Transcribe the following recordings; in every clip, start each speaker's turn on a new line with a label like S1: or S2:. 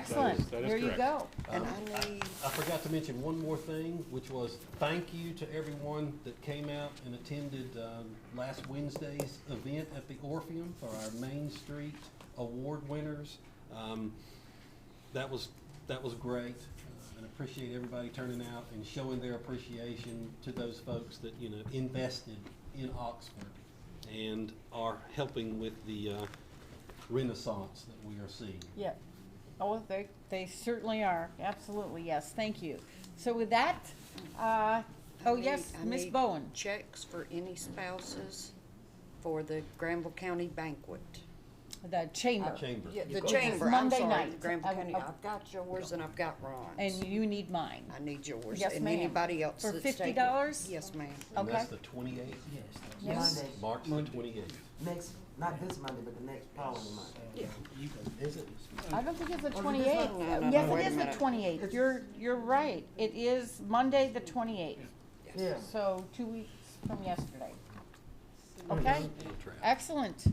S1: Excellent.
S2: that is
S1: There you
S2: correct.
S1: go.
S3: And
S4: Um,
S3: I need,
S4: I forgot to mention one more thing, which was thank you to everyone that came out and attended um, last Wednesday's event at the Orpheum for our Main Street Award winners. Um, That was, that was great, uh, and appreciate everybody turning out and showing their appreciation to those folks that, you know, invested in Oxford and are helping with the uh, renaissance that we are seeing.
S1: Yeah. Oh, they, they certainly are. Absolutely, yes. Thank you. So with that, uh, oh,
S3: I need-
S1: yes,
S3: I
S1: Miss
S3: need
S1: Bowen.
S3: Checks for any spouses for the Granville County banquet.
S1: The chamber.
S4: Chamber.
S3: Yeah, the
S1: got-
S3: chamber, I'm
S1: Monday
S3: sorry,
S1: night.
S3: Granville
S1: I-
S3: County,
S1: I-
S3: I've got yours and I've got Ron's.
S1: And you need mine.
S3: I need yours.
S1: Yes,
S3: And
S1: ma'am.
S3: anybody else
S1: For
S3: that's taking.
S1: $50?
S3: Yes, ma'am.
S4: And that's
S1: Okay.
S4: the twenty-eighth.
S5: Yes, that's
S1: Yes.
S5: Monday,
S4: March the twenty-eighth.
S5: next, not this Monday, but the next following Monday.
S4: You can visit.
S1: I don't think it's the
S3: Oh, it is not?
S1: twenty-eighth. Uh,
S3: No, no, no,
S1: Yes,
S3: wait
S1: it
S3: a
S1: is the
S3: minute.
S1: twenty-eighth. You're, you're right. It is Monday, the twenty-eighth.
S5: Yeah.
S1: So two weeks from yesterday. Okay?
S4: trap.
S1: Excellent.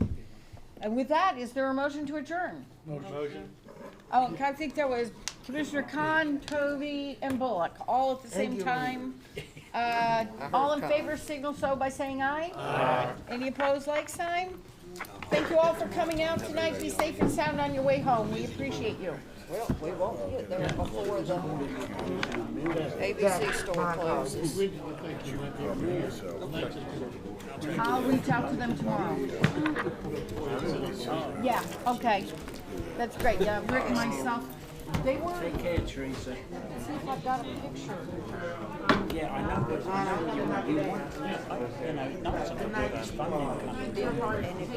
S1: And with that, is there a motion to adjourn?
S2: Motion.
S1: Oh, I think that was Commissioner Khan, Tovey, and Bullock, all at the same
S5: you.
S1: time. Uh,
S3: heard
S1: all in
S3: Khan.
S1: favor, signal so by saying aye. Aye. Any opposed, like sign? Thank you all for coming out tonight. Be safe and sound on your way home. We appreciate you.
S3: Well, we won't get there before the ABC store closes.
S1: I'll reach out to them tomorrow. Yeah, okay. That's great. Yeah, Rick and myself, they were. Take care, Teresa. See if I've got a picture.
S6: Yeah, I know, but you know, you want, you know, not something that's funding.